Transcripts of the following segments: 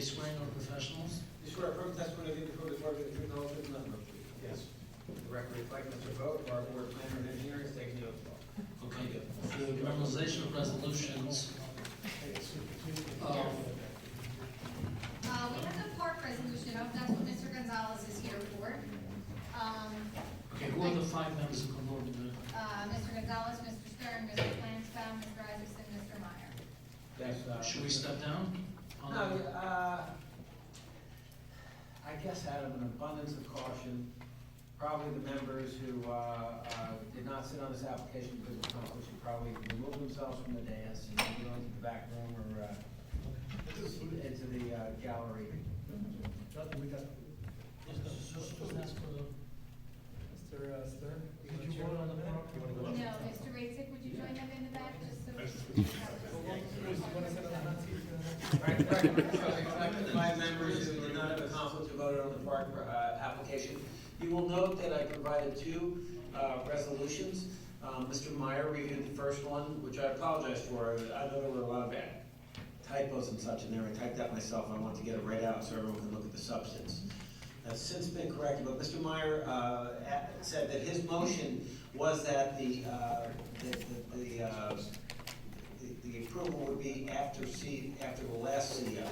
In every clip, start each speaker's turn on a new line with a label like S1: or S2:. S1: swearing of professionals?
S2: You swear affirm testimony you give before the board is the truth, the whole truth, and nothing but the truth.
S3: Yes.
S2: The record reflects Mr. Vogt, our board planner and engineer, has taken the oath of office.
S1: Okay, the memorization of resolutions. Um,
S4: Uh, we have the park resolution up, that's what Mr. Gonzalez is here for. Um,
S1: Okay, who are the five members of the board?
S4: uh, Mr. Gonzalez, Mr. Stern, Mr. Flansbrough, Mr. Isaacson, Mr. Meyer.
S2: That's, uh,
S1: Should we step down?
S2: No,
S1: Um,
S2: uh, I guess out of an abundance of caution, probably the members who, uh, uh, did not sit on this application because of conflict should probably remove themselves from the dais and go into the back room or, uh, into the uh, gallery.
S5: Mr. Stern?
S6: Did you vote on the prop- uh, you wanna
S4: No,
S6: go up?
S4: Mr. Raisik, would you join them in the back, just so?
S2: Right, right. Reflect the Five members who did not have a conflict who voted on the park, uh, application. You will note that I provided two, uh, resolutions. Um, Mr. Meyer reviewed the first one, which I apologize for. I know there were a lot of bad typos and such in there. I typed that myself. I wanted to get it right out so everyone can look at the substance. That's since been corrected, but Mr. Meyer, uh, a- said that his motion was that the, uh, the, the, the, uh, the- the approval would be after C, after the last CO.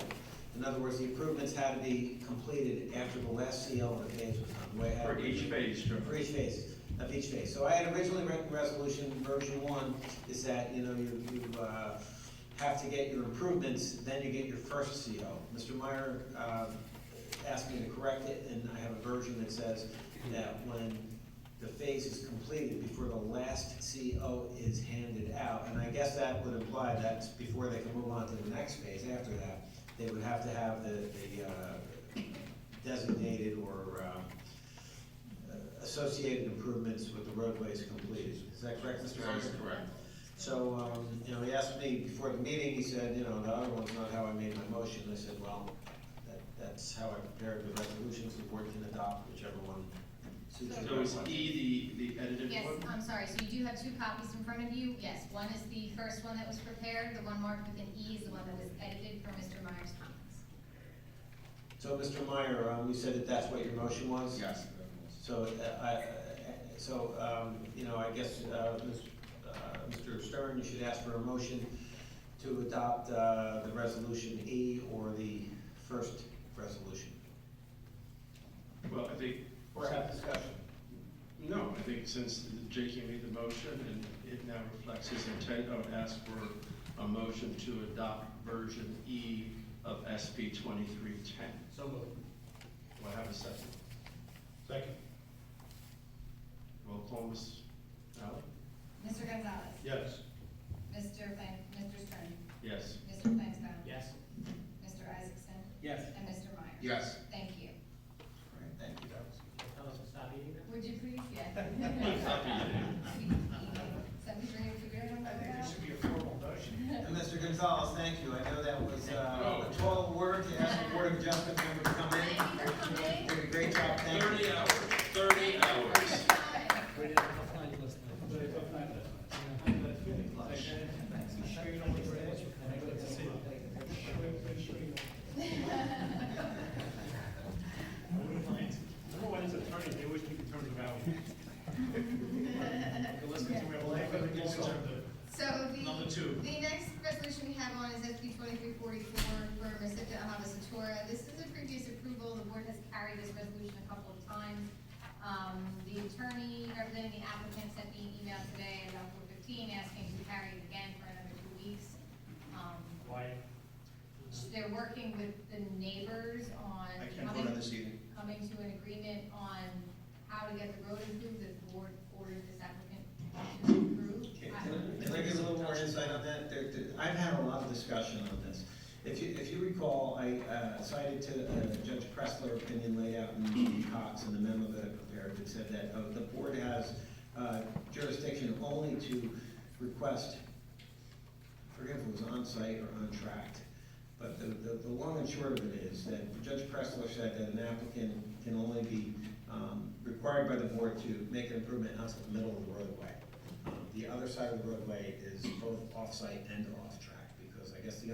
S2: In other words, the improvements had to be completed after the last CO and the phase was done. the way I had
S3: For
S2: it written.
S3: each phase, Joe.
S2: For each phase, of each phase. So I had originally written resolution version one, is that, you know, you, you, uh, have to get your improvements, then you get your first CO. Mr. Meyer, uh, asked me to correct it, and I have a version that says that when the phase is completed, before the last CO is handed out, and I guess that would imply that before they can move on to the next phase after that, they would have to have the, the, uh, designated or, um, uh, associated improvements with the roadways completed. Is that correct, Mr. Meyer?
S3: That is correct.
S2: So, um, you know, he asked me before the meeting, he said, you know, the other one's not how I made my motion. I said, well, that, that's how I prepared the resolutions, the board can adopt whichever one suits
S3: So
S2: your
S3: is
S2: one.
S3: E the, the edited
S4: Yes,
S3: one?
S4: I'm sorry, so you do have two copies in front of you, yes, one is the first one that was prepared, the one marked with an E is the one that was edited for Mr. Meyer's comments.
S2: So, Mr. Meyer, um, you said that that's what your motion was?
S3: Yes.
S2: So, uh, I, uh, so, um, you know, I guess, uh, Ms., uh, Mr. Stern, you should ask for a motion to adopt, uh, the resolution E or the first resolution.
S3: Well, I think,
S2: Or have discussion.
S3: no, I think since J.K. made the motion and it now reflects his intent, I would ask for a motion to adopt version E of SP twenty-three ten.
S5: So moved.
S3: Do I have a second?
S6: Second.
S3: Roll call, Ms. Allen?
S4: Mr. Gonzalez,
S6: Yes.
S4: Mr. Flan, Mr. Stern,
S3: Yes.
S4: Mr. Flansbrough,
S5: Yes.
S4: Mr. Isaacson,
S5: Yes.
S4: and Mr. Meyer.
S3: Yes.
S4: Thank you.
S2: Thank you, that was-
S5: Tell us to stop eating now.
S4: Would you please, yes. Something for you to figure out
S7: I think there
S4: about?
S7: should be a formal motion.
S2: And Mr. Gonzalez, thank you. I know that was uh, a tall word to ask the Board of Adjustment member to come
S4: Thank
S2: in.
S4: you for coming.
S2: Did a great job, thank you.
S3: hours, thirty hours.
S5: We did a tough night last night.
S7: I'm sure you don't want to say it. I'm glad to see you. I'm pretty sure you don't. I wouldn't mind. I don't know why his attorney, they always keep the attorney around. Let's get to real life. Yes, sir.
S4: So
S7: Number
S4: the,
S7: two.
S4: the next resolution we have on is SB twenty-three forty-four for Masita Ahava Satora. This is a previous approval, the board has carried this resolution a couple of times. Um, the attorney representing the applicant sent me an email today about four fifteen asking to carry it again for another two weeks. Um,
S7: Why?
S4: they're working with the neighbors on
S3: I can't vote on
S4: coming,
S3: this evening.
S4: coming to an agreement on how to get the road improved, the board ordered this applicant to improve.
S2: Can
S4: I-
S2: I- can I give a little more insight on that? There- there- I've had a lot of discussion on this. If you, if you recall, I uh, cited to uh, Judge Pressler opinion laid out in Cox in the memo that I prepared that said that uh, the board has uh, jurisdiction only to request, I forget if it was on-site or on-tract, but the, the, the long and short of it is that Judge Pressler said that an applicant can only be um, required by the board to make an improvement out of the middle of the roadway. Um, The other side of the roadway is both off-site and off-track, because I guess the